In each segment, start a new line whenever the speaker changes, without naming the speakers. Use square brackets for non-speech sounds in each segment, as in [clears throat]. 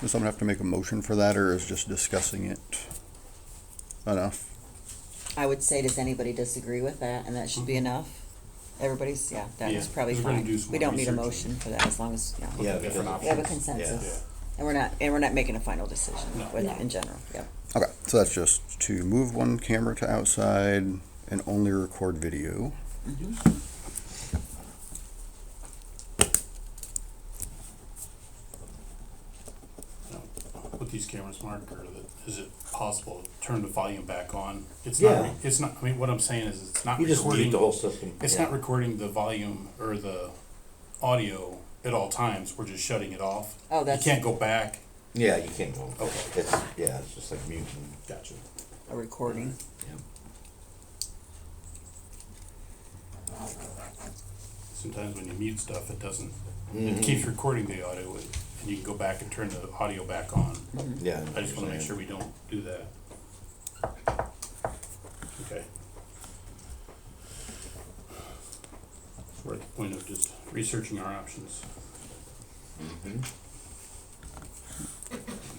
Does someone have to make a motion for that, or is just discussing it enough?
I would say, does anybody disagree with that, and that should be enough? Everybody's, yeah, that is
Yeah,
probably
we're gonna do
fine.
some
We don't need a
research.
motion for that, as long as, yeah.
Yeah,
because
different
it's-
We have a
options.
consensus, and we're not, and we're not making a final decision
No.
with,
No.
in general, yeah.
Okay, so that's just to move one camera to outside and only record video.
Mm-hmm. With these cameras, Mark, or the- is it possible to turn the volume back on? It's not, re-
Yeah.
it's not, I mean, what I'm saying is it's not
You just mute the
recording,
whole system.
it's not recording the volume or the audio at all times, we're just shutting it off.
Oh,
You
that's-
can't go back.
Yeah, you can't go.
Okay.
It's, yeah, it's just like mute and. Gotcha.
A recording.
Sometimes when you mute stuff, it doesn't,
Mm-hmm.
it keeps recording the audio, and you can go back and turn the audio back on.
Yeah.
I just wanna make sure we don't do that. Okay. So We're at the point of just researching our options.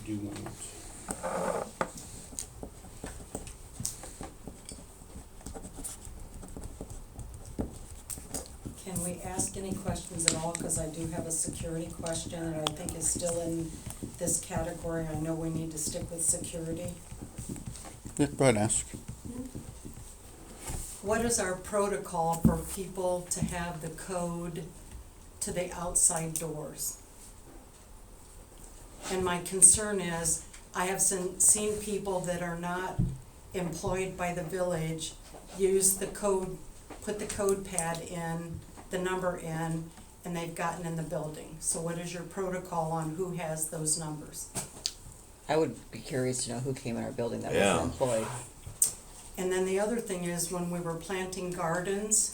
We do want,
Can we ask any questions at all? Because I do have a security question that I think is still in this category. I know we need to stick with security.
Yeah, go ahead and ask.
What is our protocol for people to have the code to the outside doors? And my concern is, I have seen, seen people that are not employed by the village use the code, put the code pad in, the number in, and they've gotten in the building. So what is your protocol on who has those numbers?
I would be curious to know who came in our building that
Yeah.
was employed.
And then the other thing is, when we were planting gardens,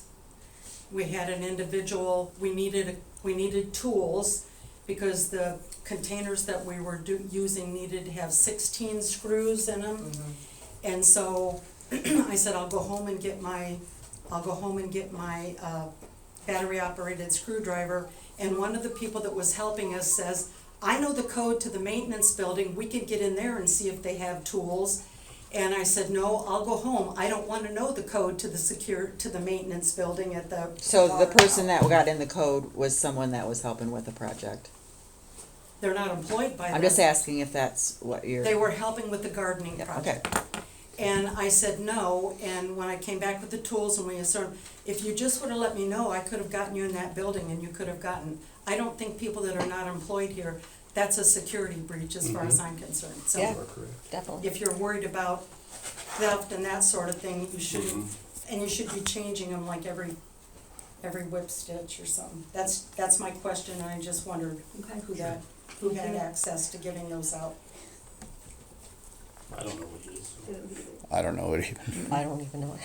we had an individual, we needed, we needed tools because the containers that we were do, using needed to have sixteen screws in them. And so [clears throat] I said, I'll go home and get my, I'll go home and get my, uh, battery operated screwdriver. And one of the people that was helping us says, I know the code to the maintenance building, we can get in there and see if they have tools. And I said, no, I'll go home, I don't wanna know the code to the secure, to the maintenance building at the.
So the
water
person
tower."
that got in the code was someone that was helping with the project.
They're not employed by them.
I'm just asking if that's what you're.
They were helping with the gardening
Yeah,
project.
Okay,
And I said no, and when I came back with the tools and we sort of, if you just would have let me know, I could have gotten you in that building and you could have gotten. I don't think people that are not employed here, that's a security breach as far as I'm concerned, so.
Yeah.
you are correct.
definitely.
If you're worried about theft and that sort of thing, you should, and you should be changing them like every, every whip stitch or something. That's, that's my question, and I just wondered who that, who had
Mm-hmm.
access to giving those out.
I don't know what it is,
I don't know it even.
I don't even know.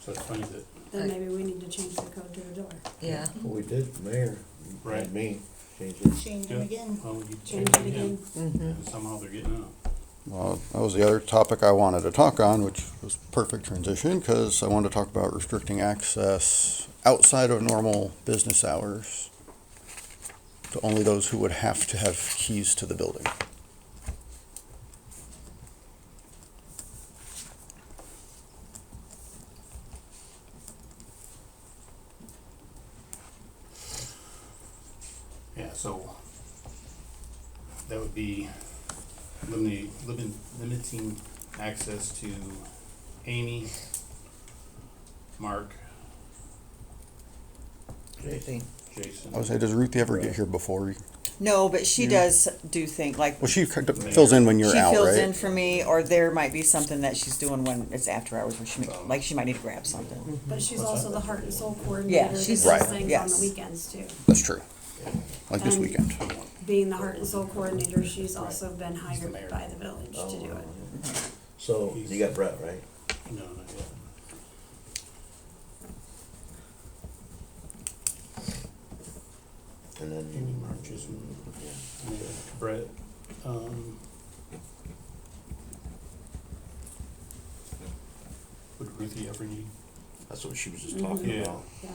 so it's funny that,
Then maybe we need to change the code to a door.
Mm-hmm.
Yeah.
Well, we did, mayor.
Right.
Me, change it.
Change
them Yeah.
again.
well, you
Change
changed
it
again,
again.
Mm-hmm.
and somehow they're getting out.
Well, that was the other topic I wanted to talk on, which was perfect transition, because I wanted to talk about restricting access outside of normal business hours to only those who would have to have keys to the building.
Yeah, so that would be limiting, limiting, limiting access to Amy, Mark,
Everything.
Jason.
I would say, does Ruthie ever get here before?
No, but she does do things like.
Well, she kind of fills in when you're
she
out,
fills
right?
in for me, or there might be something that she's doing when it's after hours, where she may, like she might need to grab something.
But she's also the heart and soul
Yeah,
coordinator. that
she's-
does
Right.
Things on
yes.
the weekends too.
That's true. Like this
Um,
weekend.
Being the heart and soul coordinator, she's also been
the
hired
mayor.
by the village to do it.
So, you got Brett, right?
No, not yet.
And
Amy,
then, Mm-hmm.
Mark, Jason, and then Brett. Um, would Ruthie ever need?
that's what she was just talking
Yeah.
about.
Yeah.